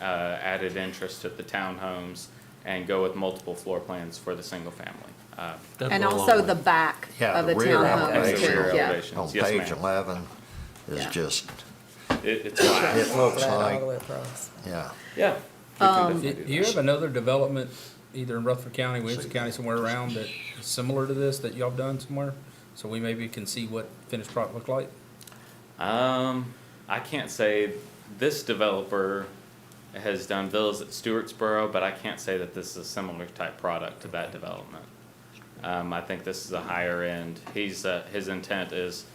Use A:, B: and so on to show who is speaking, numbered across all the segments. A: uh, added interest to the townhomes and go with multiple floor plans for the single family. Uh,
B: That'd
C: And
B: go a long
C: also
B: way.
C: the back
D: Yeah,
C: of the
D: the
A: as
D: rear
C: townhomes
A: the
D: elevation.
C: too,
A: rear
C: yeah.
A: Uh, elevations.
D: On
A: Yes,
D: page
A: ma'am.
D: eleven is
C: Yeah.
D: just,
A: It- It's flat.
D: it looks
E: Flat all the
D: like,
E: way across.
D: yeah.
A: Yeah. we can definitely
B: Do
A: do
B: do Um, you
A: that.
B: have another development, either in Rutherford County, Williamson County, somewhere around that is similar to this that y'all have done somewhere? So we maybe can see what finished product look like?
A: Um, I can't say this developer has done villas at Stewartsboro, but I can't say that this is a similar type product to that development. Um, I think this is a higher end. He's, uh, his intent is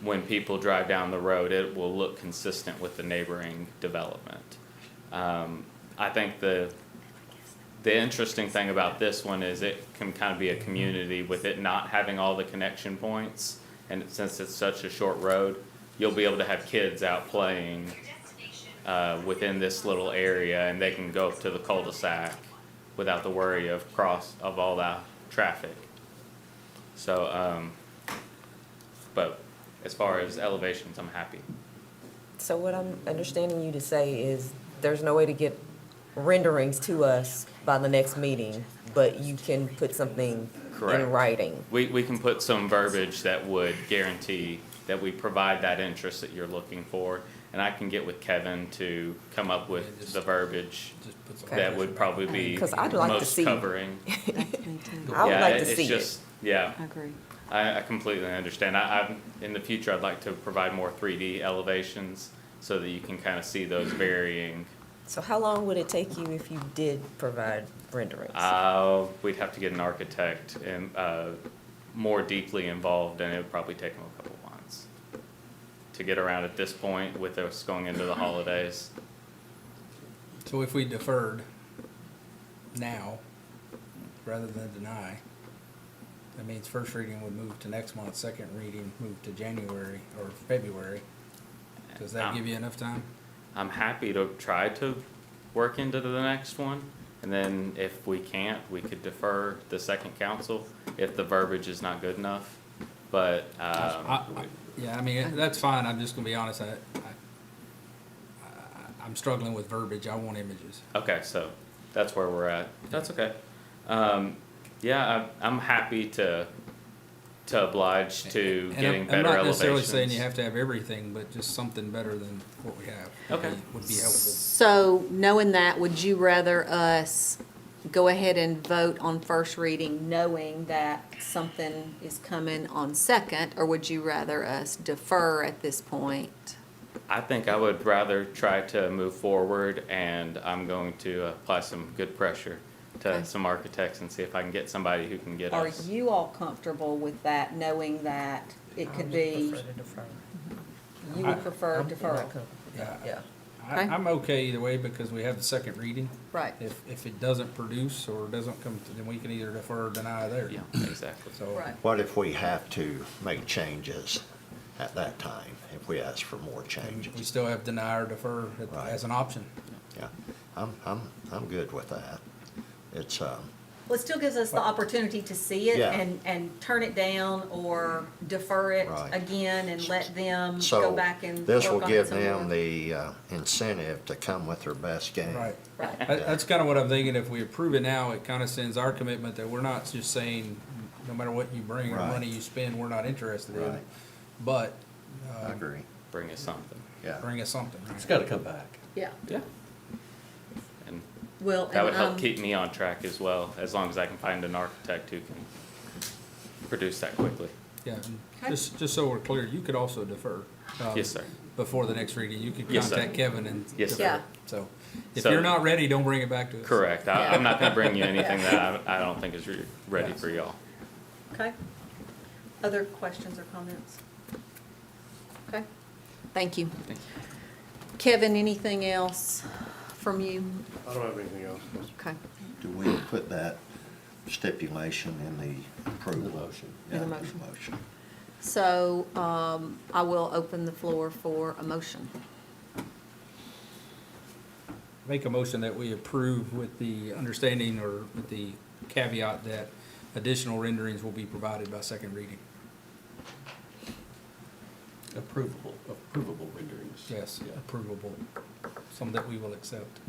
A: when people drive down the road, it will look consistent with the neighboring development. Um, I think the, the interesting thing about this one is it can kind of be a community with it not having all the connection points. And since it's such a short road, you'll be able to have kids out playing uh, within this little area and they can go up to the cul-de-sac without the worry of cross, of all that traffic. So, um, but as far as elevations, I'm happy.
E: So what I'm understanding you to say is there's no way to get renderings to us by the next meeting, but you can put something
A: Correct.
E: in writing.
A: We, we can put some verbiage that would guarantee that we provide that interest that you're looking for. And I can get with Kevin to come up
B: Yeah,
A: with
B: just-
A: the verbiage
B: Just put some-
A: that would probably be
E: 'Cause I'd like to
A: most
E: see-
A: covering.
C: Me too.
E: I would
A: Yeah,
E: like to
A: it-
E: see
A: it's
E: it.
A: just, yeah,
C: I agree.
A: I, I completely understand. I, I'm, in the future, I'd like to provide more three D elevations so that you can kind of see those varying.
E: So how long would it take you if you did provide renderings?
A: Uh, we'd have to get an architect and, uh, more deeply involved and it would probably take them a couple months to get around at this point with us going into the holidays.
B: So if we deferred now, rather than deny, that means first reading would move to next month, second reading move to January or February. Does
A: Um,
B: that give you enough time?
A: I'm happy to try to work into the next one. And then if we can't, we could defer the second council if the verbiage is not good enough. But, um,
B: I- I- Yeah, I mean, that's fine, I'm just gonna be honest, I, I, I- I'm struggling with verbiage, I want images.
A: okay, so that's where we're at. That's okay. Um, yeah, I'm, I'm happy to, to oblige to
B: And I'm-
A: getting better
B: I'm not necessarily saying you
A: elevations.
B: have to have everything, but just something better than what we have. would
A: Okay.
B: be- Would be helpful.
C: So knowing that, would you rather us go ahead and vote on first reading knowing that something is coming on second? Or would you rather us defer at this point?
A: I think I would rather try to move forward and I'm going to apply some good pressure
C: Okay.
A: to some architects and see if I can get somebody who can get
C: Are
A: us.
C: you all comfortable with that, knowing that it could be,
E: Prefer to defer.
C: you would prefer deferral?
B: Yeah, I-
E: Yeah.
B: I,
C: Okay.
B: I'm okay either way because we have the second reading.
C: Right.
B: If, if it doesn't produce or doesn't come, to- then we can either defer or deny there.
A: Yeah, exactly.
B: So.
C: Right.
D: What if we have to make changes at that time, if we ask for more
B: We
D: changes?
B: still have deny or defer at-
D: Right.
B: as an option.
E: Mm-hmm.
D: Yeah, I'm, I'm, I'm good with that. It's, um,
C: Well, it still gives us the opportunity to see it
D: Yeah.
C: and, and turn it down or defer it
D: Right.
C: again and let them go
D: so
C: back and work on it
D: this will give
C: some more.
D: them the uh, incentive to come with their best game.
B: Right.
C: Right.
B: That, that's kind of what I'm thinking. If we approve it now, it kind of sends our commitment that we're not just saying, no matter what you bring or
D: Right.
B: money you spend, we're not interested in it.
D: Right.
B: But
E: uh,
D: I agree,
A: Bring us something.
D: yeah.
B: bring us something. right?
F: It's gotta come back.
C: Yeah,
A: Yeah. And
C: well,
A: that would
C: and,
A: help
C: um,
A: keep me on track as well, as long as I can find an architect who can produce that quickly.
B: Yeah, and
C: Okay.
B: just, just so we're clear, you could also defer. um,
A: Yes, sir.
B: Before the next reading, you could
A: Yes, sir.
B: contact Kevin and
A: Yes,
B: defer
A: sir.
B: it.
C: Yeah.
B: So if
A: So-
B: you're not ready, don't bring it back to us.
A: Correct. I, I'm not gonna bring you anything that I, I don't think is re- ready for y'all.
C: okay. Other questions or comments? Okay, thank you.
A: Thank
C: Kevin, anything else from you?
G: I don't have anything else.
C: Okay,
D: Do we put that stipulation in the approval?
F: motion.
D: Yeah,
C: In the motion.
D: Motion.
C: so, um, I will open the floor for a motion.
B: Make a motion that we approve with the understanding or with the caveat that additional renderings will be provided by second reading.
F: Approvable, approvable renderings.
B: Yes,
F: Yeah.
B: approvable, some that we will accept.